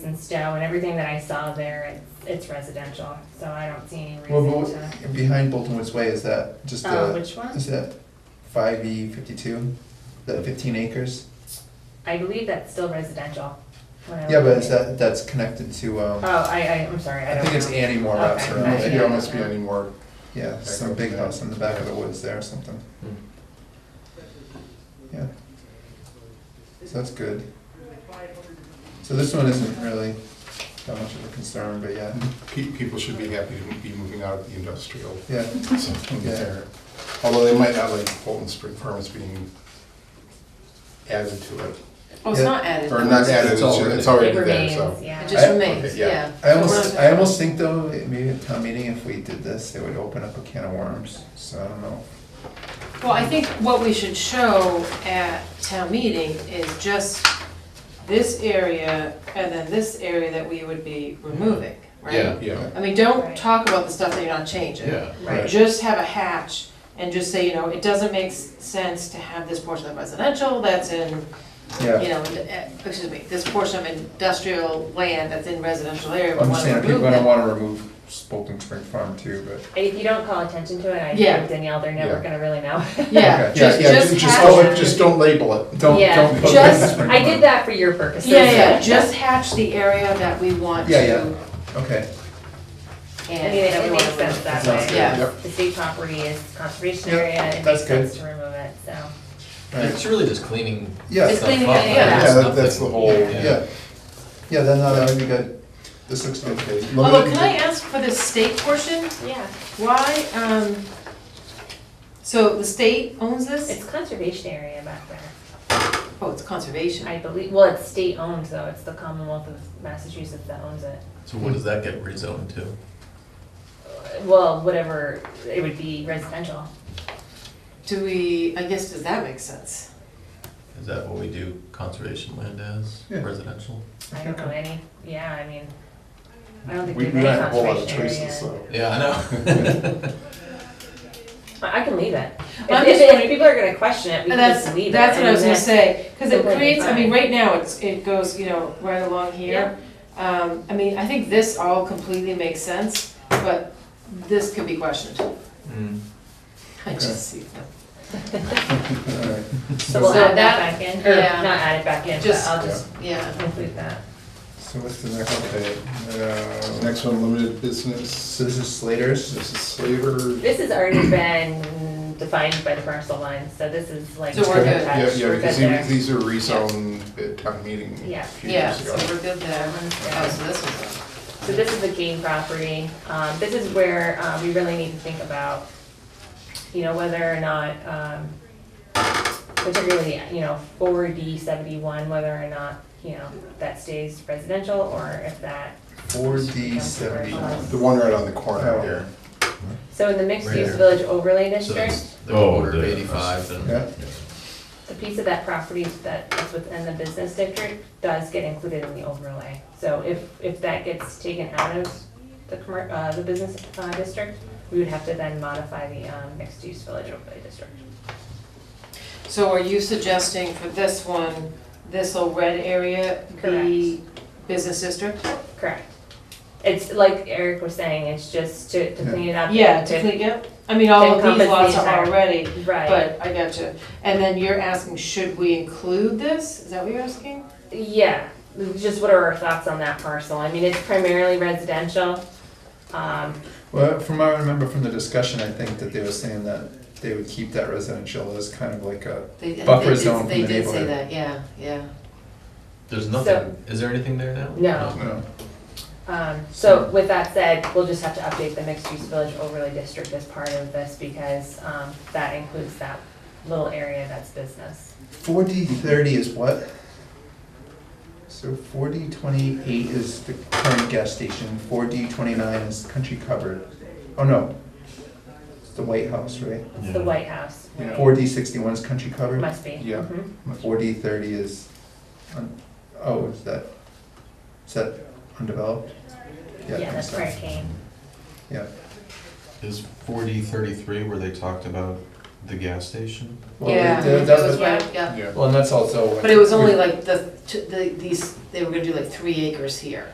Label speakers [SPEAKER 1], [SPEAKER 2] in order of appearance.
[SPEAKER 1] and Stowe and everything that I saw there, it's, it's residential, so I don't see any
[SPEAKER 2] Well,
[SPEAKER 1] reason
[SPEAKER 2] but
[SPEAKER 1] to.
[SPEAKER 2] what- behind Bolton Woods Way, is that just
[SPEAKER 1] Uh,
[SPEAKER 2] the,
[SPEAKER 1] which one?
[SPEAKER 2] is that five E fifty-two, the fifteen acres?
[SPEAKER 1] I believe that's still residential. when I
[SPEAKER 2] Yeah,
[SPEAKER 1] look
[SPEAKER 2] but
[SPEAKER 1] at
[SPEAKER 2] is
[SPEAKER 1] it.
[SPEAKER 2] that, that's connected to, um,
[SPEAKER 1] Oh, I, I, I'm sorry, I
[SPEAKER 2] I
[SPEAKER 1] don't know.
[SPEAKER 2] think it's Annie Moore
[SPEAKER 1] Okay.
[SPEAKER 2] Route,
[SPEAKER 1] Right,
[SPEAKER 3] Maybe
[SPEAKER 1] yeah.
[SPEAKER 3] there must be any more.
[SPEAKER 2] yeah, some big house in the back of the woods there or something. Yeah. So that's good. So this one isn't really that much of a concern, but yeah,
[SPEAKER 3] Pe- People should be happy to be moving out of the industrial
[SPEAKER 2] yeah,
[SPEAKER 3] zone there. Although they might not like Bolton Spring Farms being added to it,
[SPEAKER 4] Oh, it's
[SPEAKER 2] Yeah.
[SPEAKER 4] not added.
[SPEAKER 3] or not added, it's
[SPEAKER 5] It's already-
[SPEAKER 3] it's already
[SPEAKER 1] It
[SPEAKER 3] there,
[SPEAKER 1] remains,
[SPEAKER 3] so.
[SPEAKER 1] yeah.
[SPEAKER 4] It just
[SPEAKER 2] I-
[SPEAKER 4] remains,
[SPEAKER 3] okay, yeah.
[SPEAKER 4] yeah.
[SPEAKER 2] I almost, I almost think though, it- maybe at town meeting, if we did this, it would open up a can of worms, so I don't know.
[SPEAKER 4] Well, I think what we should show at town meeting is just this area and then this area that we would be removing, right?
[SPEAKER 5] Yeah.
[SPEAKER 3] Yeah,
[SPEAKER 4] I mean, don't
[SPEAKER 1] Right.
[SPEAKER 4] talk about the stuff that you're not changing.
[SPEAKER 5] Yeah,
[SPEAKER 2] Right.
[SPEAKER 4] Just have a hatch and just say, you know, it doesn't make s- sense to have this portion of residential that's in, you
[SPEAKER 2] Yeah,
[SPEAKER 4] know, in- eh, excuse me, this portion of industrial land that's in residential area. we
[SPEAKER 2] I'm
[SPEAKER 4] wanna
[SPEAKER 2] just saying, if people
[SPEAKER 4] remove
[SPEAKER 2] don't
[SPEAKER 4] it.
[SPEAKER 2] wanna remove Bolton Spring Farm too, but.
[SPEAKER 1] And If you don't call attention to it, I
[SPEAKER 4] Yeah.
[SPEAKER 1] think Danielle, they're never
[SPEAKER 3] Yeah.
[SPEAKER 1] gonna really know.
[SPEAKER 4] Yeah,
[SPEAKER 2] Okay.
[SPEAKER 3] yeah,
[SPEAKER 4] just,
[SPEAKER 3] yeah,
[SPEAKER 4] just
[SPEAKER 3] ju- just
[SPEAKER 4] hatch.
[SPEAKER 3] call it, just don't label it.
[SPEAKER 2] Don't,
[SPEAKER 1] Yeah.
[SPEAKER 2] don't. put
[SPEAKER 4] Just-
[SPEAKER 2] Bolton Spring
[SPEAKER 1] I
[SPEAKER 2] Farm.
[SPEAKER 1] did that for your purposes.
[SPEAKER 4] Yeah, yeah, just hatch the area that we want to.
[SPEAKER 2] Yeah, yeah. Okay,
[SPEAKER 1] I mean, it-
[SPEAKER 4] that we
[SPEAKER 1] it
[SPEAKER 4] wanna
[SPEAKER 1] makes sense
[SPEAKER 4] remove.
[SPEAKER 1] that
[SPEAKER 2] Sounds
[SPEAKER 1] way.
[SPEAKER 2] good.
[SPEAKER 4] Yeah.
[SPEAKER 3] Yep.
[SPEAKER 1] The state property is conservation
[SPEAKER 2] Yeah,
[SPEAKER 1] area, it
[SPEAKER 2] that's
[SPEAKER 1] makes
[SPEAKER 2] good.
[SPEAKER 1] sense to remove it, so.
[SPEAKER 2] alright,
[SPEAKER 5] it's really just cleaning.
[SPEAKER 2] Yeah. It's
[SPEAKER 5] stuff
[SPEAKER 4] cleaning
[SPEAKER 5] up
[SPEAKER 4] it,
[SPEAKER 5] and
[SPEAKER 4] yeah.
[SPEAKER 3] Yeah, that-
[SPEAKER 5] stuff
[SPEAKER 3] that's the whole,
[SPEAKER 5] Yeah.
[SPEAKER 2] yeah, yeah, then uh, that would be good, this looks good.
[SPEAKER 3] okay.
[SPEAKER 4] Although, can I ask for the state portion,
[SPEAKER 1] Yeah.
[SPEAKER 4] why, um, so the state owns this?
[SPEAKER 1] It's conservation area back there,
[SPEAKER 4] Oh, it's conservation.
[SPEAKER 1] I believe, well, it's state owned though, it's the Commonwealth of Massachusetts that owns it.
[SPEAKER 5] So what does that get rezoned to?
[SPEAKER 1] Well, whatever, it would be residential.
[SPEAKER 4] Do we, I guess, does that make sense?
[SPEAKER 5] Is that what we do conservation land as,
[SPEAKER 2] Yeah.
[SPEAKER 5] residential?
[SPEAKER 1] I don't know any, yeah, I mean, I don't think
[SPEAKER 3] We
[SPEAKER 1] there's
[SPEAKER 3] we don't have
[SPEAKER 1] any
[SPEAKER 3] a whole lot of
[SPEAKER 1] conservation
[SPEAKER 3] choices,
[SPEAKER 1] area.
[SPEAKER 3] so.
[SPEAKER 5] Yeah, I know.
[SPEAKER 1] I I can leave it.
[SPEAKER 4] I'm
[SPEAKER 1] If, if,
[SPEAKER 4] just
[SPEAKER 1] if
[SPEAKER 4] wondering-
[SPEAKER 1] people are gonna question it, we
[SPEAKER 4] And
[SPEAKER 1] can
[SPEAKER 4] that's,
[SPEAKER 1] just leave it.
[SPEAKER 4] that's what I was gonna
[SPEAKER 1] mean,
[SPEAKER 4] say, cause it
[SPEAKER 1] completely
[SPEAKER 4] creates, I mean,
[SPEAKER 1] fine.
[SPEAKER 4] right now, it's, it goes, you know, right along here. Um, I mean, I think this all completely makes sense, but this could be questioned.
[SPEAKER 5] Mm.
[SPEAKER 4] I
[SPEAKER 2] Okay.
[SPEAKER 4] just see that.
[SPEAKER 2] Alright.
[SPEAKER 1] So we'll
[SPEAKER 4] So
[SPEAKER 1] add
[SPEAKER 4] that-
[SPEAKER 1] that back in, or
[SPEAKER 4] yeah.
[SPEAKER 1] not add it back in, but
[SPEAKER 4] Just-
[SPEAKER 1] I'll just
[SPEAKER 4] Yeah.
[SPEAKER 1] include that.
[SPEAKER 2] So what's the next
[SPEAKER 3] Okay.
[SPEAKER 2] update? Uh,
[SPEAKER 3] Next one, limited business,
[SPEAKER 2] So this is Slater's,
[SPEAKER 3] this is Slater.
[SPEAKER 1] This has already been defined by the parcel line, so this is like.
[SPEAKER 4] So we're good.
[SPEAKER 3] Yeah,
[SPEAKER 1] touched,
[SPEAKER 3] yeah,
[SPEAKER 1] we're good
[SPEAKER 3] because
[SPEAKER 1] there.
[SPEAKER 3] these- these are rezoned at town meeting
[SPEAKER 1] Yeah.
[SPEAKER 3] a few
[SPEAKER 4] Yeah,
[SPEAKER 3] years
[SPEAKER 4] so
[SPEAKER 3] ago.
[SPEAKER 4] we're good there. Oh, so this is,
[SPEAKER 1] So this is a game property. Um, this is where, uh, we really need to think about, you know, whether or not, um, particularly, you know, four D seventy-one, whether or not, you know, that stays residential or if that,
[SPEAKER 2] four D seventy-one.
[SPEAKER 3] The one right on the corner
[SPEAKER 2] Oh.
[SPEAKER 3] here.
[SPEAKER 1] so in the mixed-use
[SPEAKER 5] Right.
[SPEAKER 1] village overlay
[SPEAKER 5] So
[SPEAKER 1] district,
[SPEAKER 5] it's the
[SPEAKER 6] Oh,
[SPEAKER 5] quarter of
[SPEAKER 6] the-
[SPEAKER 5] eighty-five and.
[SPEAKER 2] Yeah.
[SPEAKER 1] the piece of that property that is within the business district does get included in the overlay. So if, if that gets taken out of the commer, uh, the business, uh, district, we would have to then modify the, um, mixed-use village overlay district.
[SPEAKER 4] so are you suggesting for this one, this little red area be business district?
[SPEAKER 1] Correct. It's like Eric was saying, it's just to, to clean it up.
[SPEAKER 4] Yeah,
[SPEAKER 1] and
[SPEAKER 4] to clean up, I mean, all of these
[SPEAKER 1] Encompass
[SPEAKER 4] lots
[SPEAKER 1] these
[SPEAKER 4] are
[SPEAKER 1] are-
[SPEAKER 4] already,
[SPEAKER 1] Right,
[SPEAKER 4] but I got you. And then you're asking, should we include this? Is that what you're asking?
[SPEAKER 1] yeah, just what are our thoughts on that parcel? I mean, it's primarily residential. Um,
[SPEAKER 2] Well, from what I remember from the discussion, I think that they were saying that they would keep that residential as kind of like a,
[SPEAKER 4] They- they
[SPEAKER 2] Buffer
[SPEAKER 4] did-
[SPEAKER 2] zone from the neighborhood.
[SPEAKER 4] that, yeah, yeah.
[SPEAKER 5] There's nothing, is there anything there now?
[SPEAKER 1] No.
[SPEAKER 2] you know,
[SPEAKER 1] um, so with that said, we'll just have to update the mixed-use village overlay district as part of this because, um, that includes that little area that's business.
[SPEAKER 2] four D thirty is what? So four D twenty-eight is the current gas station, four D twenty-nine is country cupboard. Oh, no. It's the White House, right?
[SPEAKER 1] It's the White House, right?
[SPEAKER 2] Four D sixty-one is country cupboard.
[SPEAKER 1] Must be.
[SPEAKER 3] Yeah.
[SPEAKER 1] Mhm.
[SPEAKER 2] Four D thirty is, un- oh, is that, is that undeveloped? I
[SPEAKER 1] Yeah,
[SPEAKER 2] think
[SPEAKER 1] that's
[SPEAKER 2] so.
[SPEAKER 1] where it came.
[SPEAKER 2] Yeah,
[SPEAKER 5] Is four D thirty-three where they talked about the gas station.
[SPEAKER 2] Well,
[SPEAKER 4] Yeah,
[SPEAKER 2] that-
[SPEAKER 4] it
[SPEAKER 2] that-
[SPEAKER 4] was
[SPEAKER 1] yeah.
[SPEAKER 4] right, yeah.
[SPEAKER 3] Yeah.
[SPEAKER 2] Well, and that's also.
[SPEAKER 4] But it was only like the, t- the, these, they were gonna do like three acres here.